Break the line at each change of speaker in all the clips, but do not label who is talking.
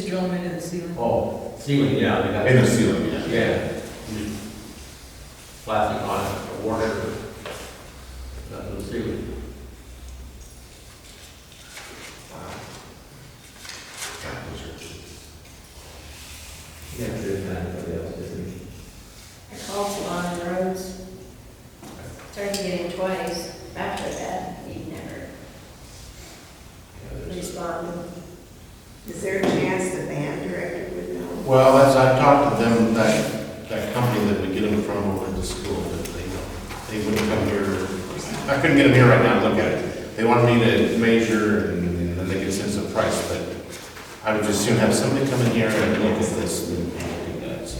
throw them into the ceiling.
Oh, ceiling, yeah, they got.
In the ceiling, yeah.
Yeah. Plastic on it, a washer, that's the ceiling.
God, those are cheap.
Yeah, there's not anybody else, isn't it?
I called Salon Rhodes, started getting twice, after that, he never
Yeah, there's-
responded.
Is there a chance the band director would know?
Well, as I talked to them, that, that company that we get them from over at the school, that they, they wouldn't come here. I couldn't get them here right now and look at it. They wanted me to measure and and then they could send us a price, but I would just soon have somebody come in here and look at this and look at that, so.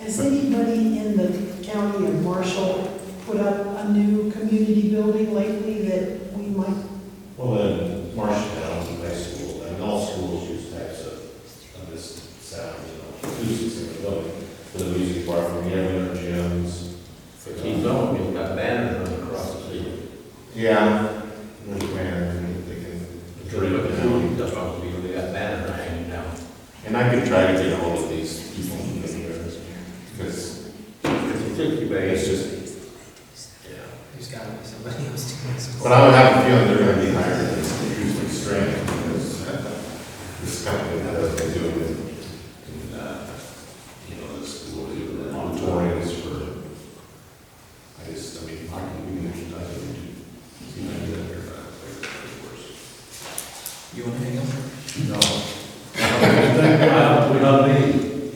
Has anybody in the county of Marshall put up a new community building lately that we might,
Well, then Marshalltown High School, and all schools use types of, of this sound, you know, acoustics in the building, for the music bar, for the other gyms. for
But
the-
he's on, he's got banners running across the ceiling.
Yeah. There's banners and they can-
If you look at the building, that's what we, they got banners hanging down.
And I could try to get hold of these people, because
It's a sixty bay, it's
it's
just,
just, yeah.
There's gotta be somebody else doing this.
But I would have a feeling they're gonna be higher than this, usually straight, because uh, this company does what they do in, uh, you know, the school, the auditoriums for, I just, I mean, I can, we can actually dive into, see, I do that here, but I think that's
You wanna hang on?
I don't, we don't need.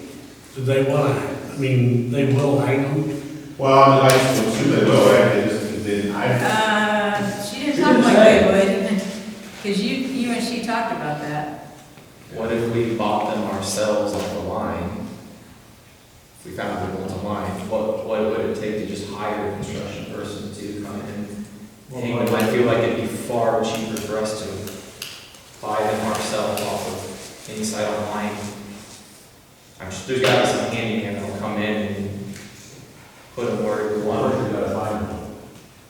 Do they want to, I mean, they will hang them?
worse. Well, I just, assume they will, right, they just, they, I,
Uh, she didn't talk like they would, because you, you and she talked about that.
What if we bought them ourselves off the line? If we found good ones online, what, what would it take to just hire a construction person to come in? And I feel like it'd be far cheaper for us to buy them ourselves off of inside online. I'm sure there's gotta be some handyman that'll come in and put them where we
One,
want.
you gotta find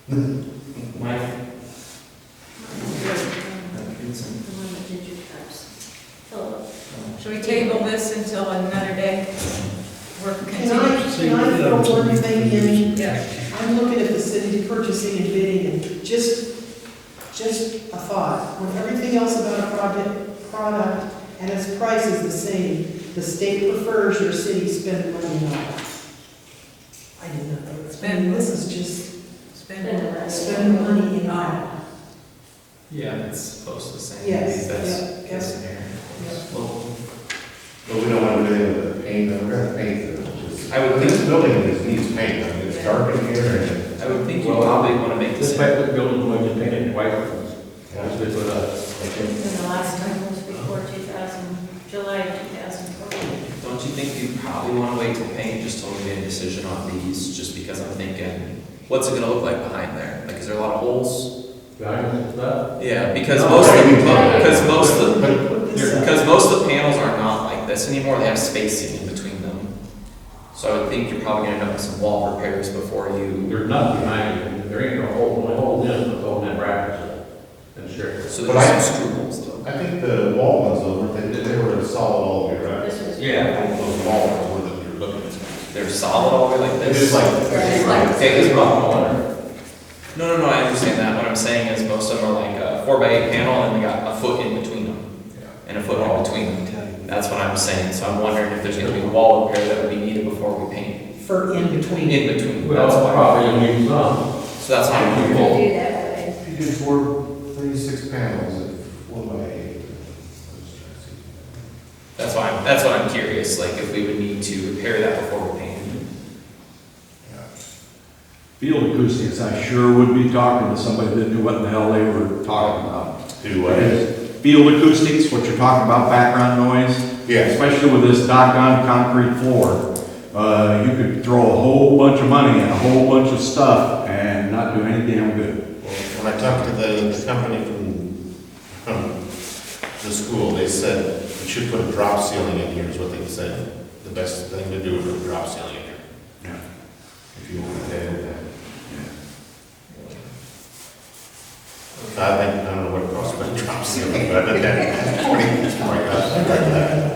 them.
Mike, uh,
The
Vincent, uh,
one with ginger cups. Philip.
Should we table this until another day? We're
can I, can I throw one thing in?
Yeah.
I'm looking at the city purchasing and bidding and just, just a thought. When everything else about a project, product and its price is the same, the state prefers your city spend money on it. I did not know. this. I mean, This is just
Spend more.
spending money in art.
yeah, it's close to the same.
Yes,
That's-
yeah, yeah.
that's in there.
Yeah.
Well,
but we don't want to do any of the paint, we're gonna paint them, just, I would, this building just needs paint, I mean, it's dark in here and.
I would think you
Well,
probably want to make
This
this.
paper building, we're just painting white ones. That's good for
uh,
us.
Okay.
And the last time was before 2000, July of 2012.
Don't you think you probably want to wait till paint just till we made a decision on these? Just because I'm thinking, what's it going to look like behind there? Like, is there a lot of holes?
Giants and stuff.
Yeah, because
No,
most of
you
the,
can't.
because most of the,
Put this up.
because most of the panels are not like this anymore. They have spacing in between them. So I would think you're probably going to end up with some wall repairs before you.
There's nothing behind it. There ain't no hole, only hole in it, holding that brackets up. And sure.
So
But I-
there's some screw holes though.
I think the wall ones though, they, they were solid all the way around.
This was.
Those wall ones were that you're looking at.
They're solid all the way like
It's
this.
just like.
It's like-
Take this wrong.
corner.
No, no, no, I understand that. What I'm saying is most of them are like a four by eight panel and they got a foot in between them. And a foot in between them. That's what I'm saying. So I'm wondering if there's gonna be a wall repair that would be needed before we paint.
For in between.
In between, that's
Well,
why.
probably you'll need some.
So that's why
We
I'm
could
going
do that, but I-
If you did four, thirty-six panels, of one by eight. I'm just trying to see.
that's why, I'm- that's why I'm curious, like if we would need to repair that before we paint.
Yeah.
Field acoustics, I sure would be talking to somebody that knew what the hell they were talking about.
Do
Field acoustics, what you're talking about, background noise,
Yes.
especially with this doggone concrete floor. Uh, you could throw a whole bunch of money and a whole bunch of stuff and not do any damn good.
When I talked to the company from, from the school, they said we should put a drop ceiling in here is what they said. The best thing to do is put a drop ceiling in here.
Yeah.
If you want to pay with that. I think, I don't know what it costs, but a drop ceiling, but I bet that, twenty, oh my gosh, I bet that.